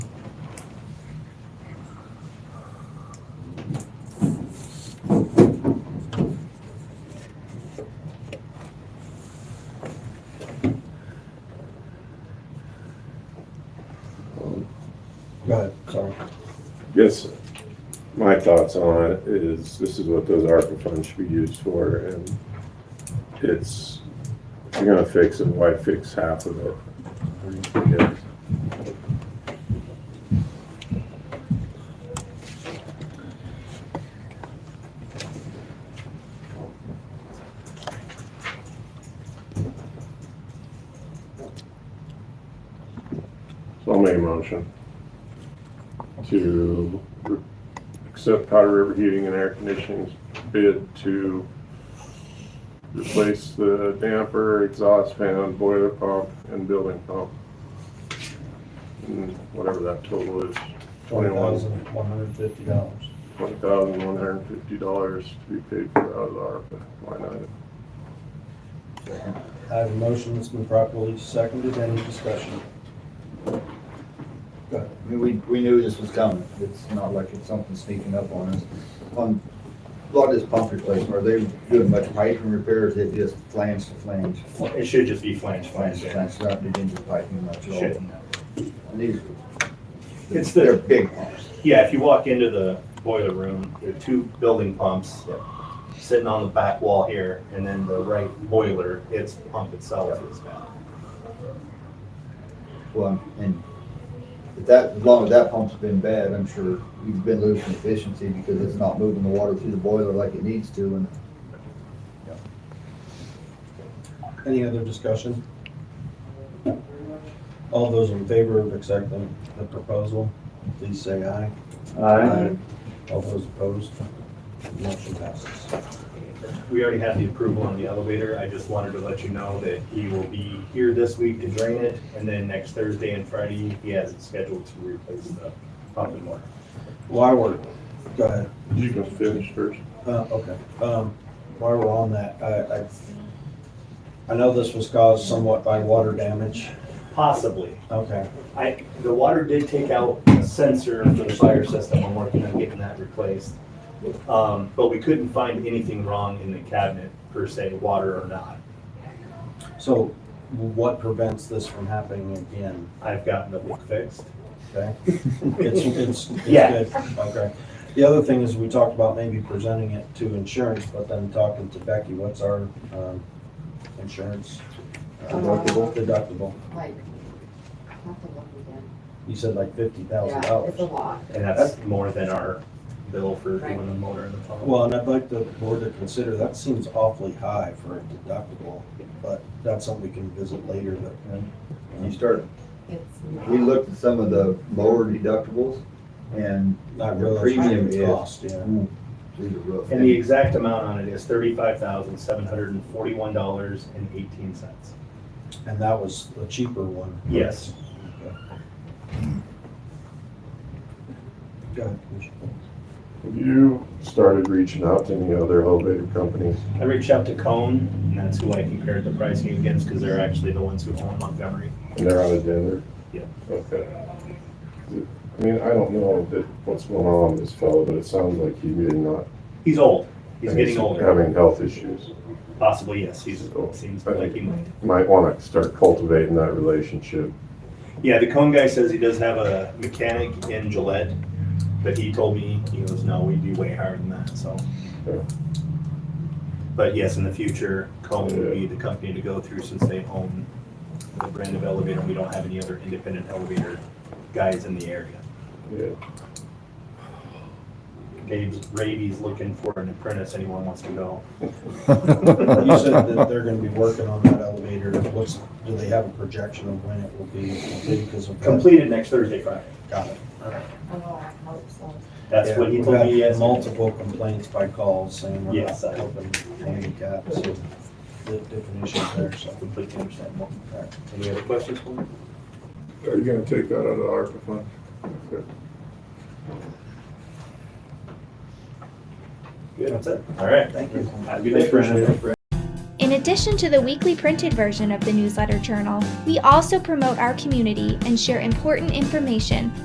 Go ahead, sorry. Yes, my thoughts on it is this is what those ARPA funds should be used for and it's, if you're gonna fix it, why fix half of it? Yeah. So I'll make a motion to re- accept Powder River Heating and Air Conditioning's bid to replace the damper, exhaust fan, boiler pump, and building pump. And Whatever that total is, Twenty thousand, one hundred and fifty dollars. twenty thousand one hundred and fifty dollars to be paid for out of the ARPA line item. I have a motion that's been properly seconded. Any discussion? I mean, we, we knew this was coming. It's not like it's something sneaking up on us. On a lot of this pump replacement, are they doing much piping repairs? It just flange to flange, It should just be flange, flange flange, to yeah. flange, not dig into the piping much at Shit. all. And These, It's they're the, big pumps. yeah, if you walk into the boiler room, there are two building pumps sitting on the back wall here, and then the right boiler, its pump itself is down. Well, and if that, as long as that pump's been bad, I'm sure you've been losing efficiency because it's not moving the water through the boiler like it needs to and Any other discussion? All those in favor of accepting the proposal, please say aye. uh, Aye. All those opposed, motion passes. We already had the approval on the elevator, I just wanted to let you know that he will be here this week to drain it, and then next Thursday and Friday, he has it scheduled to replace the pump and water. While we're, go ahead. You can finish first. Uh, okay, um, while we're on that, I, I, I know this was caused somewhat by water damage. Possibly, Okay, I, the water did take out a sensor for the fire system, I'm working on getting that replaced. Um, but we couldn't find anything wrong in the cabinet per se, water or not. so what prevents this from happening again? I've gotten the leak fixed. Okay, it's, it's, it's Yeah. good, okay. The other thing is, we talked about maybe presenting it to insurance, but then talking to Becky, what's our, um, insurance? uh, Deductible? Deductible, like, have to look again. you said like fifty thousand Yeah, it's a dollars. lot. And that's more than our bill for doing the motor and the pump. Well, and I'd like the board to consider, that seems awfully high for a deductible, but that's something we can visit later, but. you start, It's we not. looked at some of the lower deductibles and Not The really. premium is- Cost, yeah. Hmm. through the roof. And the exact amount on it is thirty-five thousand, seven hundred and forty-one dollars and eighteen cents. And that was the cheaper one. Yes. Go ahead, Commissioner. Have you started reaching out to any other elevator companies? I reached out to Cone, and that's who I compared the pricing against, because they're actually the ones who own Montgomery. They're out of Denver? Yeah. Okay. I mean, I don't know that what's going on with this fellow, but it sounds like he did not. He's old, he's and getting older, Having health issues. possibly, yes, he's, seems like he might. Might want to start cultivating that relationship. Yeah, the cone guy says he does have a mechanic in Gillette, but he told me, he goes, no, we do way higher than that, so. Yeah. But yes, in the future, Cone would be the company to go through since they own the brand of elevator. We don't have any other independent elevator guys in the area. Yeah. Dave's Raby's looking for an apprentice, anyone wants to go. You said that they're gonna be working on that elevator. What's, do they have a projection of when it will be complete? Because of. that? Completed next Thursday, Friday. Got it. Oh, I hope so. That's Yeah, what he we've told had me yesterday. Multiple complaints by calls saying we're not Yes, I- helping handicaps, so the different issues there, so. Completely understandable. Any other questions for me? Are you gonna take that out of the ARPA fund? Okay. Good, that's it. All right. Thank you. Have a good day, Brandon. In addition to the weekly printed version of the newsletter journal, we also promote our community and share important information